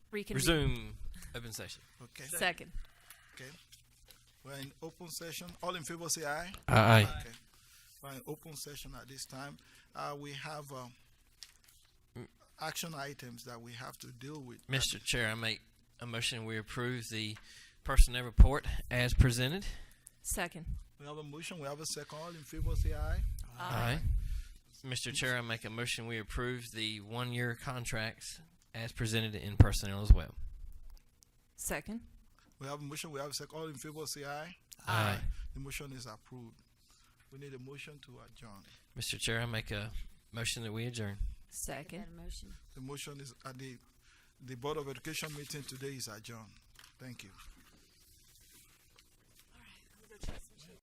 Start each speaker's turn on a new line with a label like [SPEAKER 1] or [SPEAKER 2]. [SPEAKER 1] reconvene.
[SPEAKER 2] Resume open session.
[SPEAKER 3] Okay.
[SPEAKER 1] Second.
[SPEAKER 3] Okay. We're in open session. All in favor say aye.
[SPEAKER 2] Aye.
[SPEAKER 3] Okay. We're in open session at this time. Uh, we have, um, action items that we have to deal with.
[SPEAKER 2] Mr. Chair, I make a motion we approve the personnel report as presented.
[SPEAKER 1] Second.
[SPEAKER 3] We have a motion, we have a second. All in favor say aye.
[SPEAKER 2] Aye. Mr. Chair, I make a motion we approve the one-year contracts as presented in personnel as well.
[SPEAKER 1] Second.
[SPEAKER 3] We have a motion, we have a second. All in favor say aye.
[SPEAKER 2] Aye.
[SPEAKER 3] The motion is approved. We need a motion to adjourn.
[SPEAKER 2] Mr. Chair, I make a motion that we adjourn.
[SPEAKER 1] Second.
[SPEAKER 4] That motion.
[SPEAKER 3] The motion is, uh, the, the Board of Education meeting today is adjourned. Thank you.